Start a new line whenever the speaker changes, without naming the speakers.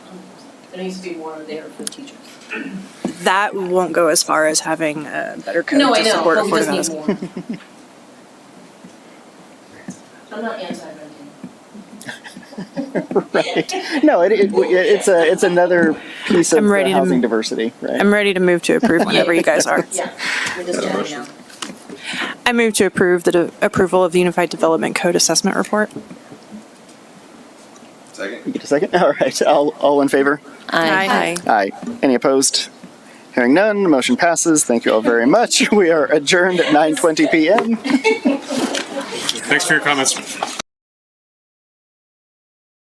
There needs to be more there for teachers.
That won't go as far as having a better code
No, I
to
know,
support
but we
affordable
just
housing.
need more. I'm not anti-renting.
right. No, it, it, it's a it's another piece of
I'm
the
ready to
housing
m-
diversity, right?
I'm ready to move to approve whenever you guys are.
Yeah, we're just chatting now.
I move to approve the de- approval of the Unified Development Code Assessment Report.
You
Second?
Get a second. All right. All all in favor?
Aye.
Aye. Any opposed? Hearing none, motion passes. Thank you all very much. We are adjourned at 9:20 p.m.
Thanks for your comments.